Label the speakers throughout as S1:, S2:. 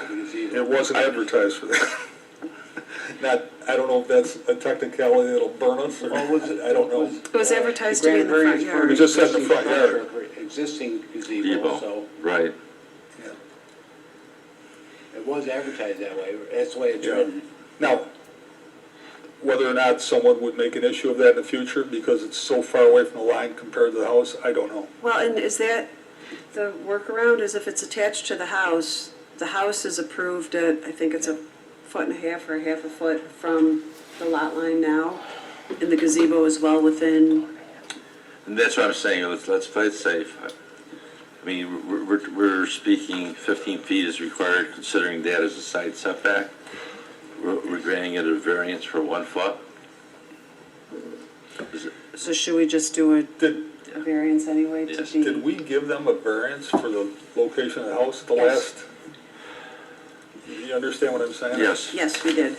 S1: It wasn't advertised for that. Not, I don't know if that's a technicality that'll burn us or,
S2: What was it?
S1: I don't know.
S2: What
S3: It was
S2: uh,
S3: advertised to be in the front
S2: grant variance for
S3: yard.
S1: It just said the front
S2: existing contract, Existing gazebo, so
S4: Debo, right.
S1: Yeah.
S2: it was advertised that way, that's the way it's
S1: Yeah.
S2: written.
S1: Now, whether or not someone would make an issue of that in the future because it's so far away from the line compared to the house, I don't know.
S3: Well, and is that, the workaround is if it's attached to the house, the house is approved at, I think it's a foot and a half or a half a foot from the lot line now, and the gazebo is well within,
S4: And that's what I'm saying, let's, let's play it safe. I mean, we're, we're, we're speaking fifteen feet is required, considering that as a side setback. We're, we're granting it a variance for one foot. Is it-
S3: so should we just do a-
S1: Did,
S3: a variance anyway to
S4: Yes.
S1: did
S3: be?
S1: we give them a variance for the location of the house at the
S3: Yes.
S1: last? You understand what I'm saying?
S4: Yes,
S3: Yes, we did.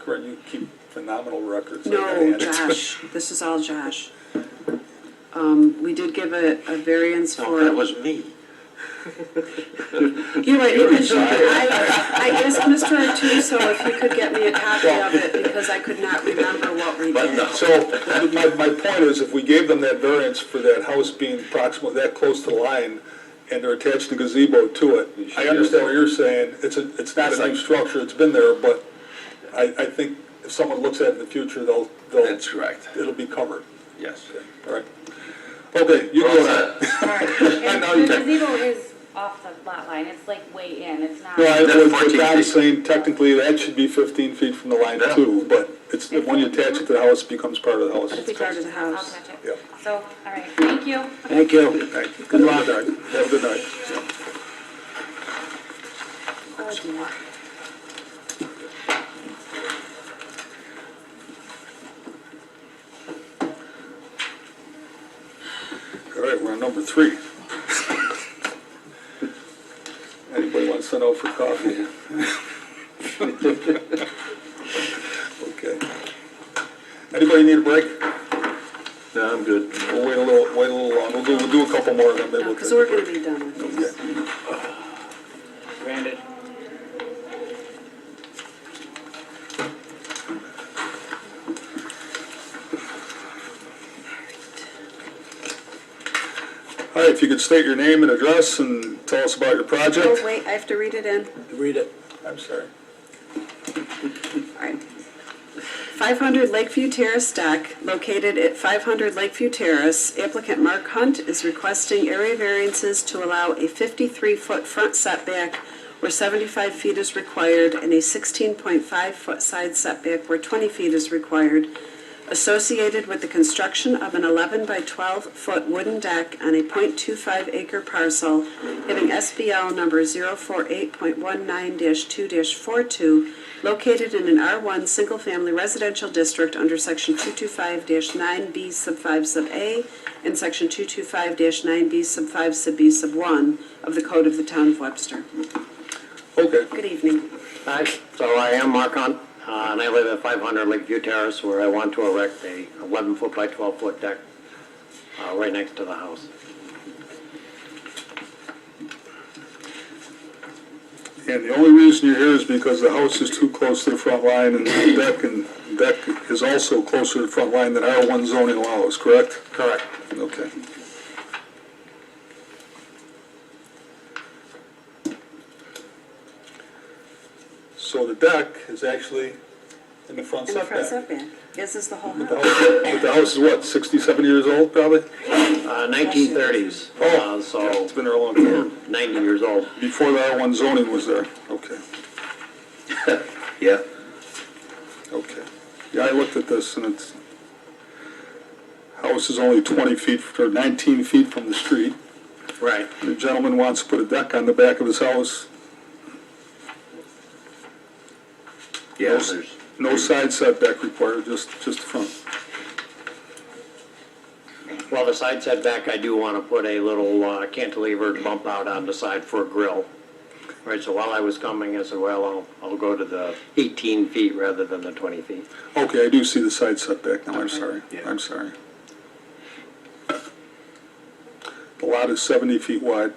S1: Corinne, you keep phenomenal records. I gotta
S3: No,
S1: hand it to you.
S3: Josh, this is all Josh. Um, we did give a, a variance
S4: no, that
S3: for,
S4: was me.
S3: you're right, it was, I, I asked Mr. Artuso if he could get me a copy of it, because I could not remember what we
S4: But
S3: did.
S4: no.
S1: So, my, my point is, if we gave them that variance for that house being proximate, that close to the line, and they're attached to gazebo to it, I understand what you're saying, it's a, it's not a new structure, it's been there, but I, I think if someone looks at it in the future, they'll, they'll,
S4: That's correct,
S1: it'll be covered,
S4: yes.
S1: all right? Okay, you
S4: Well
S1: go now.
S4: said.
S5: Sorry.
S1: I
S5: And
S1: know you
S5: The
S1: did.
S5: gazebo is off the lot line, it's like way in, it's not.
S1: No, I,
S4: That's
S1: what- what
S4: 14
S1: Don's
S4: feet.
S1: saying, technically, that should be fifteen feet from the line
S4: Yeah.
S1: too, but it's, when you attach it to the house, it becomes part of the house.
S3: It's part of the
S5: I'll
S3: house.
S5: touch
S1: Yeah.
S5: it. So, all right, thank you.
S2: Thank you.
S1: All right, Good luck, Doug, have a good night.
S3: Oh, dear.
S1: All right, we're on number three. Anybody want to send out for coffee? Okay. Anybody need a break?
S4: No, I'm good.
S1: We'll wait a little, wait a little long. We'll do, we'll do a couple more and then maybe
S3: No,
S1: we'll.
S3: because
S1: take a
S3: we're gonna
S1: break.
S3: be done with this.
S2: Granted.
S1: All right, if you could state your name and address and tell us about your
S3: Oh,
S1: project.
S3: wait, I have to read it in.
S2: Read it.
S1: I'm sorry.
S3: Alright. 500 Lakeview Terrace deck, located at 500 Lakeview Terrace, applicant Mark Hunt is requesting area variances to allow a 53-foot front setback where 75 feet is required and a 16.5-foot side setback where 20 feet is required, associated with the construction of an 11 by 12-foot wooden deck on a .25-acre parcel having SBL number 048.19-2-42, located in an R1 Single Family Residential District under Section 225-9B sub 5 sub A and Section 225-9B sub 5 sub B sub 1 of the Code of the Town of Webster.
S1: Okay,
S3: Good evening.
S6: Hi, so I am Mark Hunt, uh, and I live at 500 Lakeview Terrace, where I want to erect a 11-foot by 12-foot deck uh, right next to the house.
S1: and the only reason you're here is because the house is too close to the front line and the deck and deck is also closer to the front line than our one zoning allows, correct?
S6: Correct.
S1: Okay. So the deck is actually in the front
S3: And the front
S1: setback.
S3: setback, this is the whole
S1: The
S3: house.
S1: house- But the house is what, sixty-seven years old probably?
S6: Uh, 1930s,
S1: Oh.
S6: uh, so
S1: It's been there a long time,
S6: 90 years old.
S1: before the R one zoning was there, okay,
S4: Yeah,
S1: okay. Yeah, I looked at this and it's, house is only twenty feet, or nineteen feet from the street.
S6: Right.
S1: The gentleman wants to put a deck on the back of his house,
S4: yeah, there's,
S1: no side setback required, just, just the front.
S6: Well, the side setback, I do want to put a little uh, cantilever bump out on the side for a grill. Right, so while I was coming, I said, well, I'll, I'll go to the 18 feet rather than the 20 feet.
S1: Okay, I do see the side setback now, I'm sorry, I'm sorry. The lot is 70 feet wide.